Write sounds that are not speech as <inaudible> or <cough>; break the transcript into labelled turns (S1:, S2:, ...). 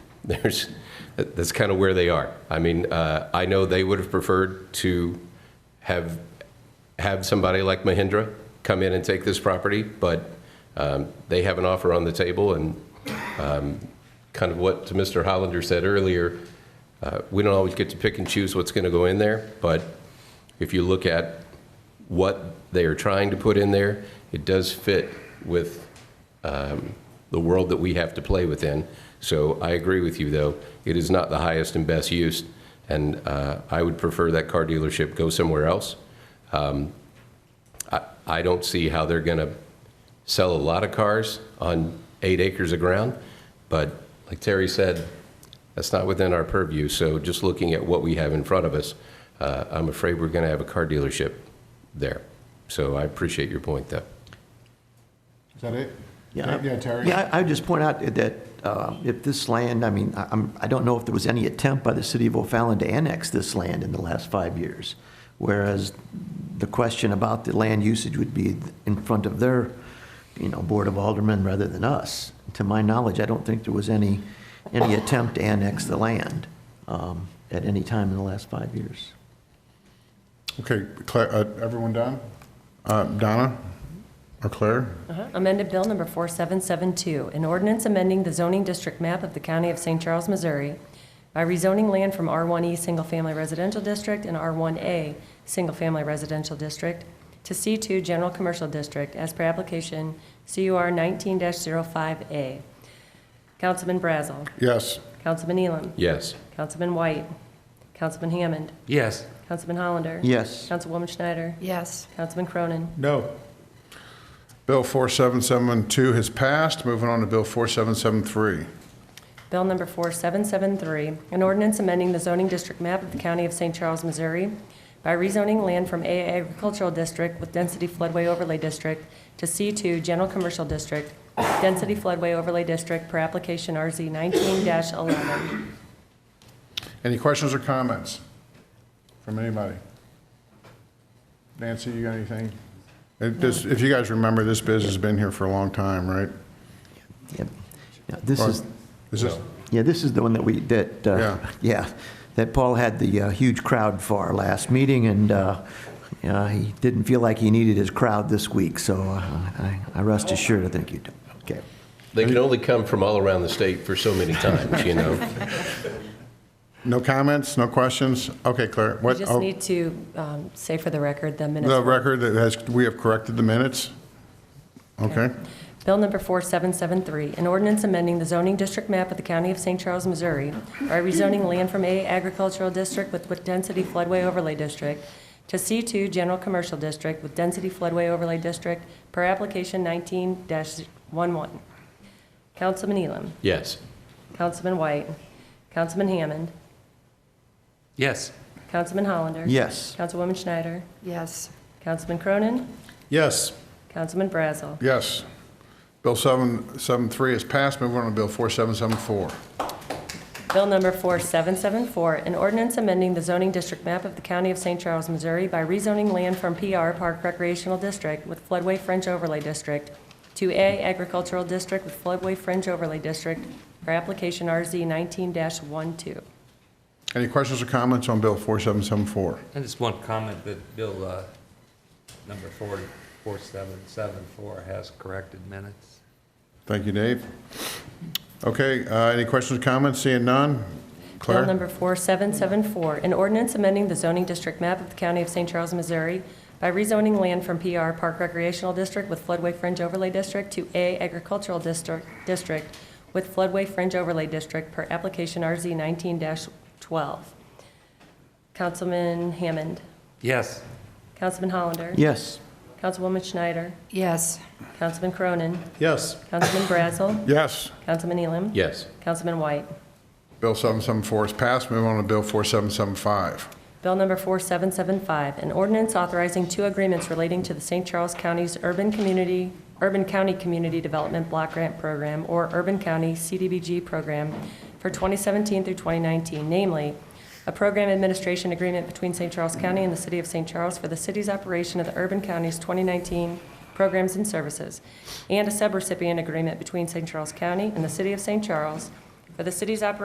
S1: there's, that- that's kind of where they are. I mean, uh, I know they would have preferred to have, have somebody like Mahindra come in and take this property, but um, they have an offer on the table, and um, kind of what Mr. Hollander said earlier, uh, we don't always get to pick and choose what's going to go in there, but if you look at what they are trying to put in there, it does fit with um, the world that we have to play within. So I agree with you, though. It is not the highest and best use, and uh, I would prefer that car dealership go somewhere else. Um, I I don't see how they're going to sell a lot of cars on eight acres of ground, but like Terry said, that's not within our purview. So just looking at what we have in front of us, uh, I'm afraid we're going to have a car dealership there. So I appreciate your point, though.
S2: Is that it?
S3: Yeah.
S2: Yeah, Terry?
S3: Yeah, I I would just point out that uh, if this land, I mean, I- I'm, I don't know if there was any attempt by the city of O'Fallon to annex this land in the last five years, whereas the question about the land usage would be in front of their, you know, Board of Aldermen rather than us. To my knowledge, I don't think there was any, any attempt to annex the land um, at any time in the last five years.
S2: Okay, Claire, uh, everyone done? Uh, Donna or Claire?
S4: Amended Bill Number 4772, an ordinance amending the zoning district map of the County of St. Charles, Missouri by rezoning land from R1E Single Family Residential District and R1A Single Family Residential District to C2 General Commercial District as per application CUR 19-05A. Councilman Brazel.
S2: Yes.
S4: Councilman Elam.
S1: Yes.
S4: Councilman White. Councilman Hammond.
S5: Yes.
S4: Councilman Hollander.
S3: Yes.
S4: Councilwoman Schneider.
S6: Yes.
S4: Councilman Cronin.
S2: No. Bill 4772 has passed. Moving on to Bill 4773.
S4: Bill number 4773, an ordinance amending the zoning district map of the County of St. Charles, Missouri by rezoning land from AA Agricultural District with Density Floodway Overlay District to C2 General Commercial District, Density Floodway Overlay District per application RZ 19-11.
S2: Any questions or comments from anybody? Nancy, you got anything? It- this- If you guys remember, this biz has been here for a long time, right?
S3: Yep. Yeah, This
S2: Or-
S3: is,
S2: Is this,
S3: Yeah, this is the one that we, that,
S2: Yeah.
S3: uh, <laughs> yeah, that Paul had the uh, huge crowd for last meeting, and uh, uh, he didn't feel like he needed his crowd this week, so uh, I I rest assured, I think you do. Okay.
S1: They can only come from all around the state for so many times, you know?
S2: no comments, no questions? Okay, Claire,
S4: We
S2: what?
S4: just
S2: oh,
S4: need to um, say for the record the minutes.
S2: The record that has, we have corrected the minutes? Okay.
S4: Bill number 4773, an ordinance amending the zoning district map of the County of St. Charles, Missouri by rezoning land from A agricultural district with with density floodway overlay district to C2 general commercial district with density floodway overlay district per application 19-11. Councilman Elam,
S1: Yes.
S4: Councilman White, Councilman Hammond,
S5: Yes.
S4: Councilman Hollander.
S3: Yes.
S4: Councilwoman Schneider,
S6: Yes.
S4: Councilman Cronin,
S2: Yes.
S4: Councilman Brazel.
S2: Yes. Bill 773 is passed. Move on to Bill 4774.
S4: Bill number 4774, an ordinance amending the zoning district map of the County of St. Charles, Missouri by rezoning land from PR Park Recreational District with floodway fringe overlay district to A Agricultural District with floodway fringe overlay district for application RZ 19-12.
S2: Any questions or comments on Bill 4774?
S5: I just one comment that Bill, uh, number 44774 has corrected minutes.
S2: Thank you, Dave. Okay, uh, any questions or comments? Seeing none?
S4: Bill
S2: Claire?
S4: number 4774, an ordinance amending the zoning district map of the County of St. Charles, Missouri by rezoning land from PR Park Recreational District with floodway fringe overlay district to A Agricultural District, District with floodway fringe overlay district per application RZ 19-12. Councilman Hammond,
S5: Yes.
S4: Councilman Hollander.
S3: Yes.
S4: Councilwoman Schneider,
S6: Yes.
S4: Councilman Cronin,
S2: Yes.
S4: Councilman Brazel,
S2: Yes.
S4: Councilman Elam.
S1: Yes.
S4: Councilman White.
S2: Bill 774 is passed. Move on to Bill 4775.
S4: Bill number 4775, an ordinance authorizing two agreements relating to the St. Charles County's Urban Community, Urban County Community Development Block Grant Program, or Urban County CDBG Program for 2017 through 2019, namely, a program administration agreement between St. Charles County and the City of St. Charles for the city's operation of the Urban County's 2019 programs and services, and a subrecipient agreement between St. Charles County and the City of St. Charles for the city's operation